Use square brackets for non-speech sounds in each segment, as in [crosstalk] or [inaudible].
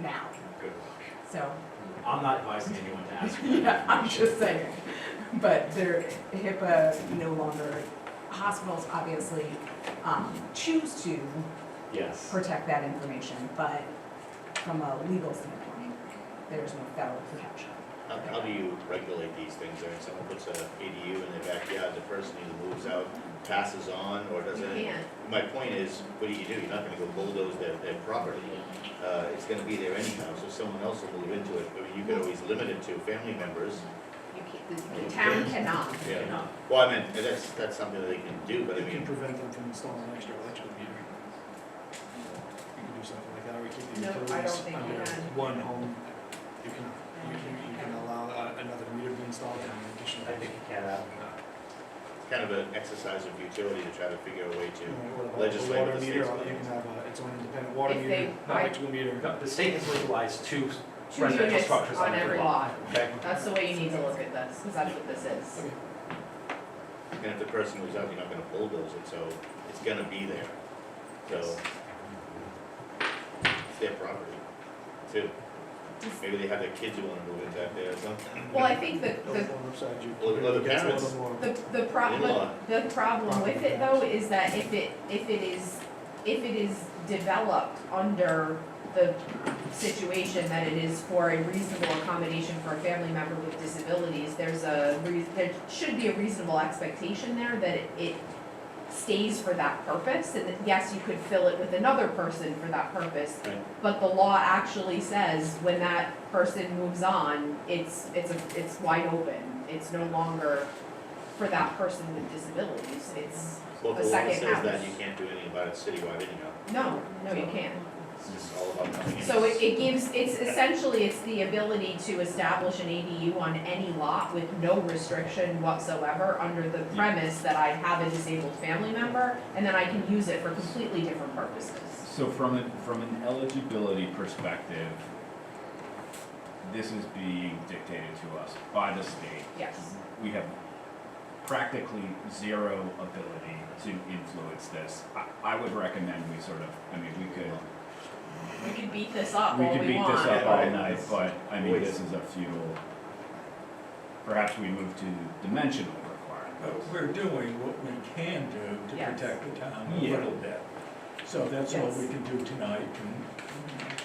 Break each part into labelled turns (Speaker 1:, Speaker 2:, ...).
Speaker 1: now,
Speaker 2: Good.
Speaker 1: so, [laughs]
Speaker 2: I'm not advising anyone to ask. for that
Speaker 1: yeah, I'm just
Speaker 2: information.
Speaker 1: saying. But their HIPAA no longer, hospitals obviously, um, choose to
Speaker 2: Yes.
Speaker 1: protect that information, but from a legal standpoint, there's no federal protection.
Speaker 3: How, how do you regulate these things? I mean, someone puts a ADU in their backyard, the person either moves out, passes on, or
Speaker 4: You
Speaker 3: doesn't.
Speaker 4: can't.
Speaker 3: My point is, what do you do? You're not gonna go bulldoze their, their property. Uh, it's gonna be there anyhow, so someone else will move into it. I mean, you could always limit it to family members.
Speaker 4: You can't, the town cannot.
Speaker 2: Fair enough.
Speaker 3: Well, I mean, that's, that's something that they can do, but I
Speaker 5: You can
Speaker 3: mean,
Speaker 5: prevent them from installing an extra electrical meter. You can do something like that, or you keep the
Speaker 4: No, I don't
Speaker 5: utilities
Speaker 4: think you
Speaker 5: under
Speaker 4: can.
Speaker 5: one home. You can, you can, you can allow uh, another meter to be installed and an additional.
Speaker 2: I think you can, uh,
Speaker 3: it's kind of an exercise of utility to try to figure a way
Speaker 5: You know,
Speaker 3: to,
Speaker 5: or a
Speaker 3: Legislate
Speaker 5: Water
Speaker 3: the
Speaker 5: meter,
Speaker 3: state's
Speaker 5: or you can
Speaker 3: plans.
Speaker 5: have uh, its own independent water
Speaker 4: If
Speaker 5: meter,
Speaker 4: they- I-
Speaker 5: electrical meter.
Speaker 2: no, The state has legalized two
Speaker 4: Two
Speaker 2: residential
Speaker 4: units
Speaker 2: structures
Speaker 4: on
Speaker 2: on
Speaker 4: every
Speaker 2: every lot.
Speaker 4: lot.
Speaker 2: Okay?
Speaker 4: That's the way you need to look at this, because that's what this is.
Speaker 5: Okay.
Speaker 3: and if the person moves out, you're not gonna bulldoze it, so it's gonna be there. So. It's their property, too. Maybe they have their kids who wanna move in back there or something.
Speaker 4: Well, I think the,
Speaker 5: Those
Speaker 4: the,
Speaker 5: on the side, you-
Speaker 3: Well, well, the
Speaker 5: it gets a
Speaker 3: parents-
Speaker 5: little more-
Speaker 4: the, the problem, the problem with it though is that if it, if it is, if it is developed under the situation that it is for a reasonable accommodation for a family member with disabilities, there's a, rea- there should be a reasonable expectation there that it- it stays for that purpose, and that, yes, you could fill it with another person for that purpose.
Speaker 3: Right.
Speaker 4: But the law actually says when that person moves on, it's, it's, a- it's wide open, it's no longer for that person with disabilities, it's,
Speaker 3: Well,
Speaker 4: the
Speaker 3: the law
Speaker 4: second
Speaker 3: says
Speaker 4: house.
Speaker 3: that you can't do anything about it citywide anyhow,
Speaker 4: no, no, you can't.
Speaker 3: it's just all about coming in.
Speaker 4: So it, it gives, it's essentially, it's the ability to establish an ADU on any lot with no restriction whatsoever under the premise that I have a disabled family member, and then I can use it for completely different purposes.
Speaker 6: So from a, from an eligibility perspective, this is being dictated to us by the state.
Speaker 4: Yes,
Speaker 6: We have practically zero ability to influence this. I, I would recommend we sort of, I mean, we could,
Speaker 4: we could beat this up all we
Speaker 6: we
Speaker 4: want.
Speaker 6: could beat this up all
Speaker 3: Yeah.
Speaker 6: night, but I mean, this is a futile. Perhaps we move to dimensional
Speaker 7: But
Speaker 6: requirements.
Speaker 7: we're doing what we can do to
Speaker 4: Yes.
Speaker 7: protect the
Speaker 5: Oh.
Speaker 7: town a
Speaker 6: Yeah.
Speaker 7: little bit. So that's all we
Speaker 4: Yes.
Speaker 7: can do tonight, and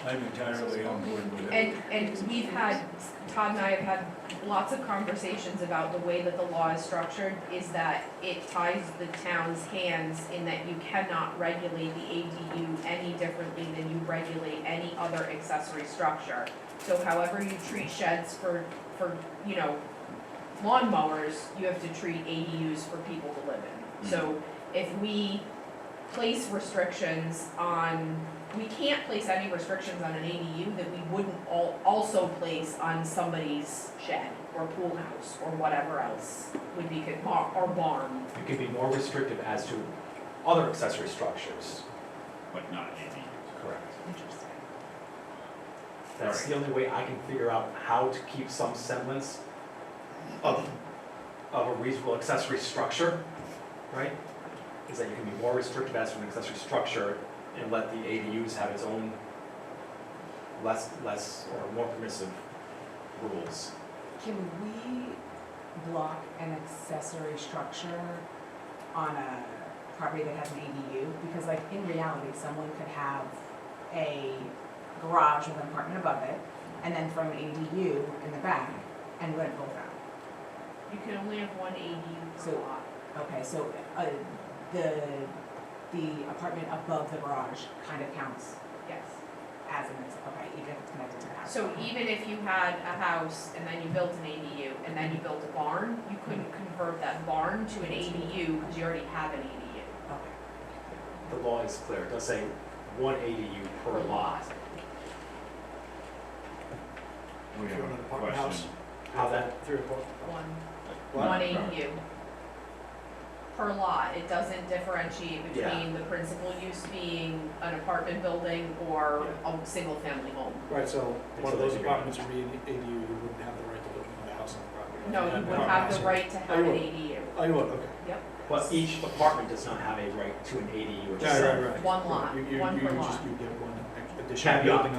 Speaker 7: I'm entirely on board with it.
Speaker 4: And, and we've had, Todd and I have had lots of conversations about the way that the law is structured, is that it ties the town's hands in that you cannot regulate the ADU any differently than you regulate any other accessory structure. So however you treat sheds for, for, you know, lawnmowers, you have to treat ADUs for people to live in. So if we place restrictions on we can't place any restrictions on an ADU that we wouldn't al- also place on somebody's shed or pool house or whatever else would be, con- bar- or barn.
Speaker 2: It could be more restrictive as to other accessory structures.
Speaker 6: But not ADUs.
Speaker 2: Correct.
Speaker 4: Interesting.
Speaker 2: That's the only way I can figure out how to keep some semblance of, of a reasonable accessory structure, right? Is that you can be more restrictive as to an accessory structure and let the ADUs have its own less, less or more permissive rules.
Speaker 1: Can we block an accessory structure on a property that has an ADU? Because like in reality, someone could have a garage with an apartment above it and then throw an ADU in the back and rent both out.
Speaker 4: You can only have one ADU per
Speaker 1: So-
Speaker 4: lot.
Speaker 1: Okay, so uh, the, the apartment above the garage kind of counts
Speaker 4: Yes.
Speaker 1: as an, okay, even if it's connected to the house.
Speaker 4: So e- even if you had a house and then you built an ADU and then you built a barn, you couldn't convert that barn to an ADU because you already have an ADU.
Speaker 1: Okay.
Speaker 2: The law is clear, it does say one ADU per lot.
Speaker 6: We
Speaker 5: If
Speaker 6: have
Speaker 5: you're in an
Speaker 6: a
Speaker 5: apartment house,
Speaker 6: question.
Speaker 2: How that,
Speaker 5: Three or four.
Speaker 4: One.
Speaker 6: Wow.
Speaker 4: one ADU per lot, it doesn't differentiate
Speaker 2: Yeah.
Speaker 4: between the principal use being an apartment building or a single-family home.
Speaker 5: Right, so
Speaker 2: Until
Speaker 5: one of
Speaker 2: they
Speaker 5: those
Speaker 2: figure it out.
Speaker 5: apartments would be an ADU, you wouldn't have the right to build another house on the property.
Speaker 4: No, you would have the right to have an
Speaker 5: would.
Speaker 4: ADU,
Speaker 5: Oh, you would, okay.
Speaker 2: but each apartment does not have a right to an ADU itself.
Speaker 5: Right, right, right.
Speaker 4: one lot,
Speaker 5: You- you-
Speaker 4: one per
Speaker 5: You
Speaker 4: lot.
Speaker 5: just, you get one additional
Speaker 2: Caveat.
Speaker 5: building